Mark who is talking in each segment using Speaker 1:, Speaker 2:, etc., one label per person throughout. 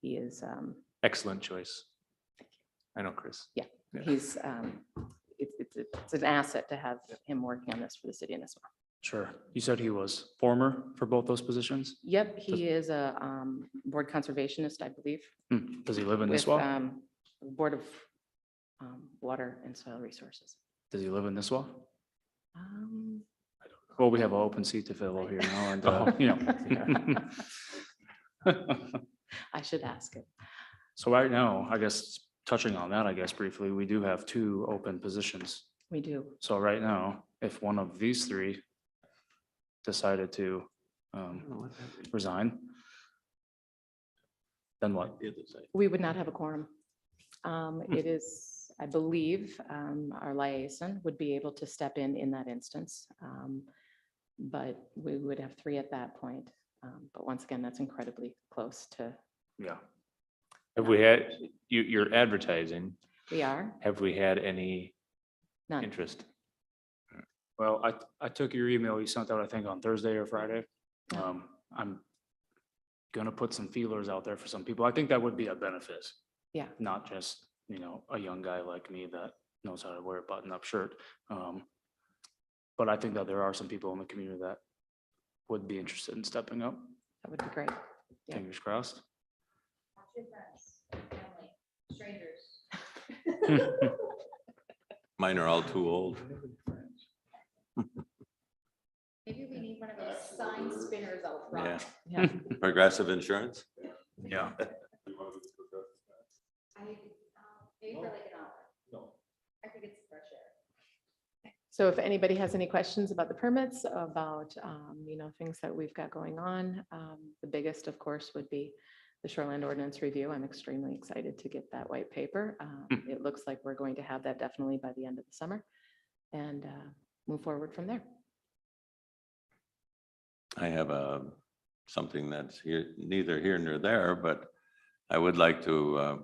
Speaker 1: He is, um,
Speaker 2: Excellent choice. I know, Chris. Yeah.
Speaker 1: he's, um, it's, it's, it's an asset to have him working on this for the city and this one.
Speaker 2: Sure. You said he was former for both those positions?
Speaker 1: Yep, he is a, um, board conservationist, I believe.
Speaker 2: Hmm, Does he live in
Speaker 1: with
Speaker 2: Nisswa?
Speaker 1: um, Board of um, Water and Soil Resources.
Speaker 2: Does he live in Nisswa?
Speaker 1: Um,
Speaker 2: Well, we have an open seat to fill over here now and, uh, you know.
Speaker 1: I should ask him.
Speaker 2: So right now, I guess touching on that, I guess briefly, we do have two open positions.
Speaker 1: We do.
Speaker 2: So right now, if one of these three decided to um, resign, then what?
Speaker 1: We would not have a quorum. Um, It is, I believe, um, our liaison would be able to step in in that instance. Um, But we would have three at that point. Um, But once again, that's incredibly close to,
Speaker 2: Yeah.
Speaker 3: Have we had, you, you're advertising,
Speaker 1: we are,
Speaker 3: have we had any
Speaker 1: none.
Speaker 3: interest?
Speaker 2: Well, I, I took your email you sent out, I think, on Thursday or Friday.
Speaker 1: Yeah.
Speaker 2: Um, I'm gonna put some feelers out there for some people. I think that would be a benefit.
Speaker 1: Yeah.
Speaker 2: Not just, you know, a young guy like me that knows how to wear a button-up shirt. Um, But I think that there are some people in the community that would be interested in stepping up.
Speaker 1: That would be great. Yeah.
Speaker 2: Fingers crossed.
Speaker 4: Two friends, family, strangers.
Speaker 5: Mine are all too old.
Speaker 4: Maybe we need one of those sign spinners out
Speaker 5: Yeah.
Speaker 4: front.
Speaker 1: Yeah.
Speaker 5: Progressive Insurance?
Speaker 2: Yeah.
Speaker 4: I, um, maybe for like an hour. No. I think it's fresh air.
Speaker 1: So if anybody has any questions about the permits, about, um, you know, things that we've got going on, um, the biggest, of course, would be the shoreline ordinance review. I'm extremely excited to get that white paper. Uh,
Speaker 5: Hmm.
Speaker 1: It looks like we're going to have that definitely by the end of the summer and uh, move forward from there.
Speaker 5: I have a, something that's here, neither here nor there, but I would like to, uh,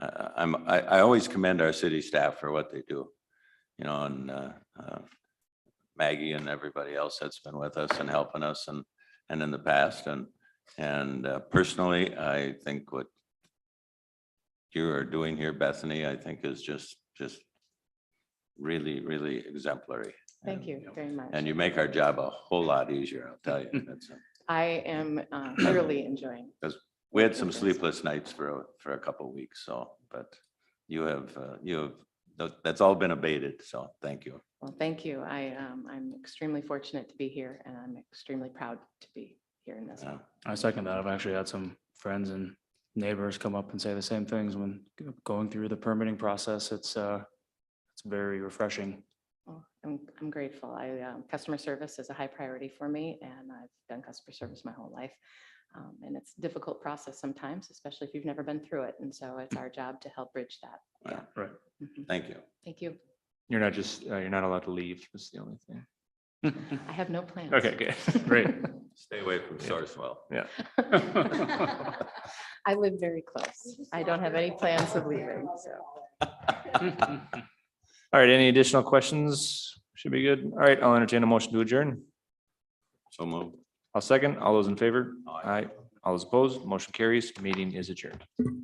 Speaker 5: I, I- I'm, I, I always commend our city staff for what they do. You know, and, uh, uh, Maggie and everybody else that's been with us and helping us and, and in the past and, and uh, personally, I think what you are doing here, Bethany, I think is just, just really, really exemplary.
Speaker 1: Thank
Speaker 5: And,
Speaker 1: you very much.
Speaker 5: And you make our job a whole lot easier, I'll tell you. That's-
Speaker 1: I am uh, thoroughly enjoying.
Speaker 5: We had some sleepless nights for, a- for a couple of weeks, so, but you have, uh, you have, that- that's all been abated, so thank you.
Speaker 1: Well, thank you. I, um, I'm extremely fortunate to be here and I'm extremely proud to be here in this.
Speaker 5: Yeah.
Speaker 2: I second that. I've actually had some friends and neighbors come up and say the same things when g- going through the permitting process. It's, uh, it's very refreshing.
Speaker 1: Well, Oh, I'm, I'm grateful. I, um, customer service is a high priority for me and I've done customer service my whole life. Um, and it's a difficult process sometimes, especially if you've never been through it. And so it's our job to help bridge that. Yeah.
Speaker 5: Wow.
Speaker 2: Right.
Speaker 1: Mhm.
Speaker 5: Thank you.
Speaker 1: Thank you.
Speaker 3: You're not just, uh, you're not allowed to leave, that's the only thing.
Speaker 1: I have no plans.
Speaker 3: Okay, good, great.
Speaker 5: Stay away from Sourcewell.
Speaker 1: I live very
Speaker 4: We
Speaker 1: close.
Speaker 4: just
Speaker 1: I
Speaker 4: walk
Speaker 1: don't have any
Speaker 4: around.
Speaker 1: plans of leaving, so.
Speaker 3: All right, any additional questions? Should be good. All right, I'll entertain a motion to adjourn.
Speaker 5: So move.
Speaker 3: I'll second. All those in favor?
Speaker 5: Aye.
Speaker 3: All All those opposed, motion carries, meeting is adjourned.